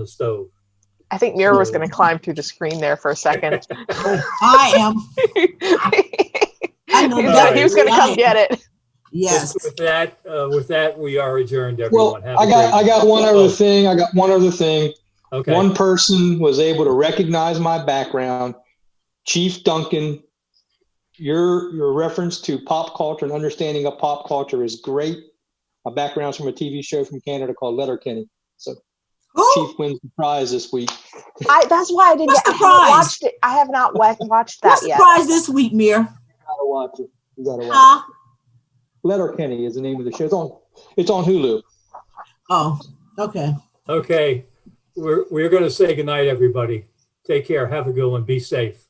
the stove. I think Mira was going to climb through the screen there for a second. I am. I know He's like, he was going to come that. get it. Yes. With that, uh, with that, we are adjourned, Well, everyone. Have a I got I great- got one Oh, other thing. I got one other thing. Okay. One person was able to recognize my background. Chief Duncan, your your reference to pop culture and understanding of pop culture is great. My background's from a TV show from Canada called Letterkenny. Who? Chief wins the prize this week. I, that's why I didn't. What's Get, I the haven't prize? watched it. I have not wa- watched that What's the yet. prize this week, Mir? You gotta watch it. You gotta watch Huh? it. Letterkenny is the name of the show. It's on it's on Hulu. Oh, okay. Okay, we're, we're going to say goodnight, everybody. Take care, have a good one, be safe.